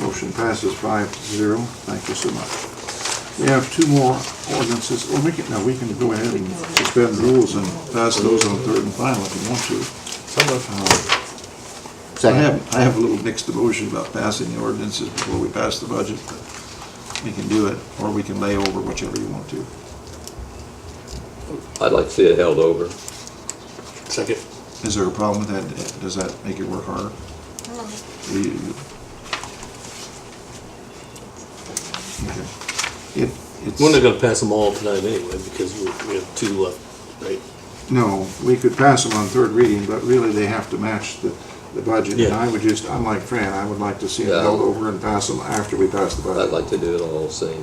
Motion passes five to zero. Thank you so much. We have two more ordinances. Well, we can, no, we can go ahead and suspend rules and pass those on third and final if you want to. Uh, I Second. have, I have a little mixed emotion about passing the ordinances before we pass the budget, but we can do it, or we can lay over whichever you want to. I'd like to see it held over. Second. Is there a problem with that? Does that make it work harder? You- you- Okay. It, it's. We're not gonna pass them all tonight anyway, because we, we have two left, right? No, we could pass them on third reading, but really they have to match the, the budget. And Yeah. I would just, I'm like Fran, I would like to see it Yeah. held over and pass them after we pass the budget. I'd like to do it all same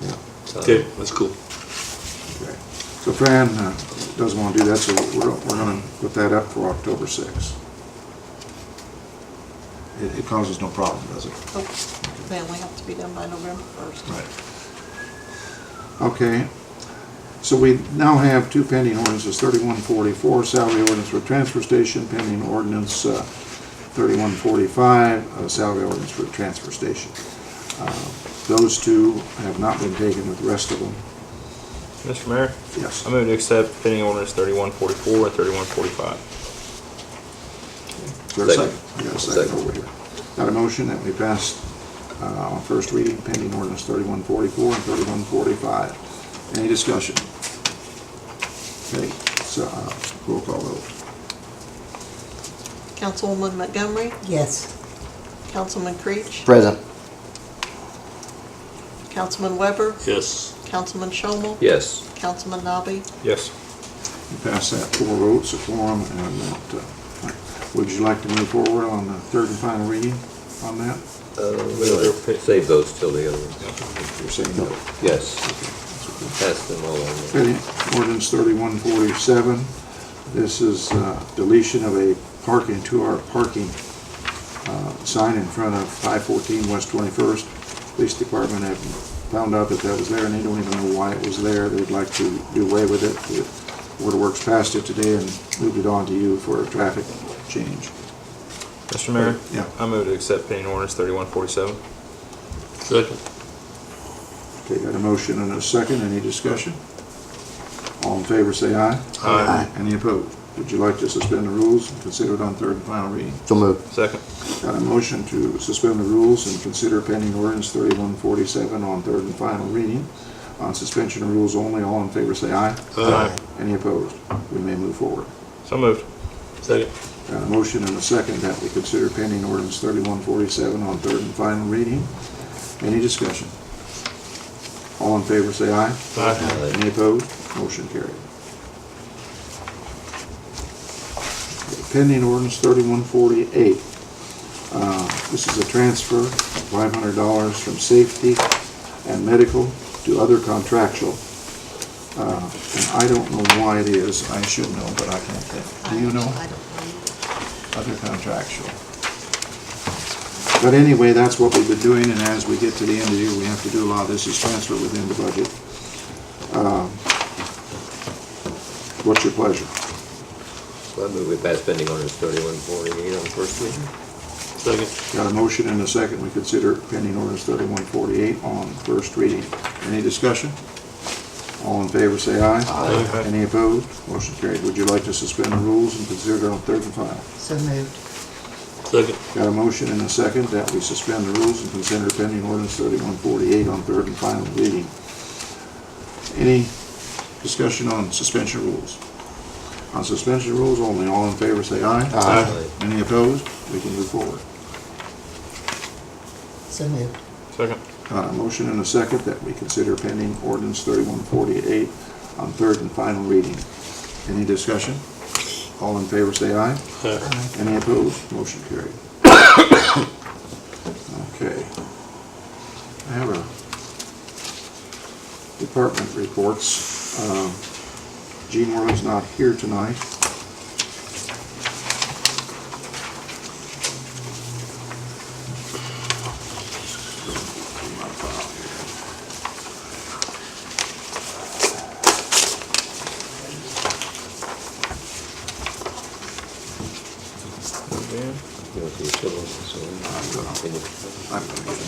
Yeah, time. Uh-huh. That's cool. okay. So Fran uh, doesn't want to do that, so we're, we're gonna put that up for October sixth. It, it causes no problem, does it? They only have to be done by November first. Right. Okay, so we now have two pending ordinances, thirty-one forty-four, salary ordinance for transfer station, pending ordinance, uh, thirty-one forty-five, uh, salary ordinance for transfer station. Uh, Those two have not been taken with the rest of them, Mr. Mayor, yes. I move to accept pending orders thirty-one forty-four and thirty-one forty-five. Is there a second? Second. I got a second Second. over here. Got a motion that we passed, uh, on first reading, pending ordinance thirty-one forty-four and thirty-one forty-five. Any discussion? Okay, so, uh, roll call vote. Councilwoman Montgomery, Yes. Councilman Creech, Present. Councilman Weber, Yes. Councilman Shomel, Yes. Councilman Nabi, Yes. We Pass that four votes, a quorum, and that, uh, would you like to move forward on the third and final reading on that? Uh, really, Save those till the other one. If You're saying no. Yes. Pass them all on. Okay, Ordinance thirty-one forty-seven, this is uh, deletion of a parking, two-hour parking uh, sign in front of five fourteen West Twenty-first. Police Department have found out that that was there, and they don't even know why it was there, they'd like to do away with it. The Board of Works passed it today and moved it on to you for a traffic change. Mr. Mayor? Yeah. I move to accept pending orders thirty-one forty-seven. Second. Okay, got a motion and a second, any discussion? All in favor, say aye. Aye. Any opposed? Would you like to suspend the rules and consider it on third and final reading? So moved. Second. Got a motion to suspend the rules and consider pending ordinance thirty-one forty-seven on third and final reading. On suspension of rules only, all in favor, say aye. Aye. Any opposed? We may move forward. So moved. Second. Got a motion and a second that we consider pending ordinance thirty-one forty-seven on third and final reading. Any discussion? All in favor, say aye. Aye. Aye. Any opposed? Motion carried. Pending ordinance thirty-one forty-eight. Uh, This is a transfer of five hundred dollars from safety and medical to other contractual. Uh, And I don't know why it is. I should know, but I can't think. Do you know? I don't know. Other contractual. But anyway, that's what we've been doing, and as we get to the end of the year, we have to do a lot of this is transfer within the budget. Um, What's your pleasure? So I move we pass pending orders thirty-one forty-eight on first reading. Second. Got a motion and a second. We consider pending ordinance thirty-one forty-eight on first reading. Any discussion? All in favor, say aye. Aye. Any opposed? Motion carried. Would you like to suspend the rules and consider it on third and final? So moved. Second. Got a motion and a second that we suspend the rules and consider pending ordinance thirty-one forty-eight on third and final reading. Any discussion on suspension rules? On suspension rules only, all in favor say aye. Aye. Any opposed? We can move forward. So moved. Second. Got a motion and a second that we consider pending ordinance thirty-one forty-eight on third and final reading. Any discussion? All in favor say aye. Aye. Any opposed? Motion carried. Okay. I have a department reports. Um, Gene Worley's not here tonight. Again. You want to see the civil, so- I'm gonna- I'm gonna get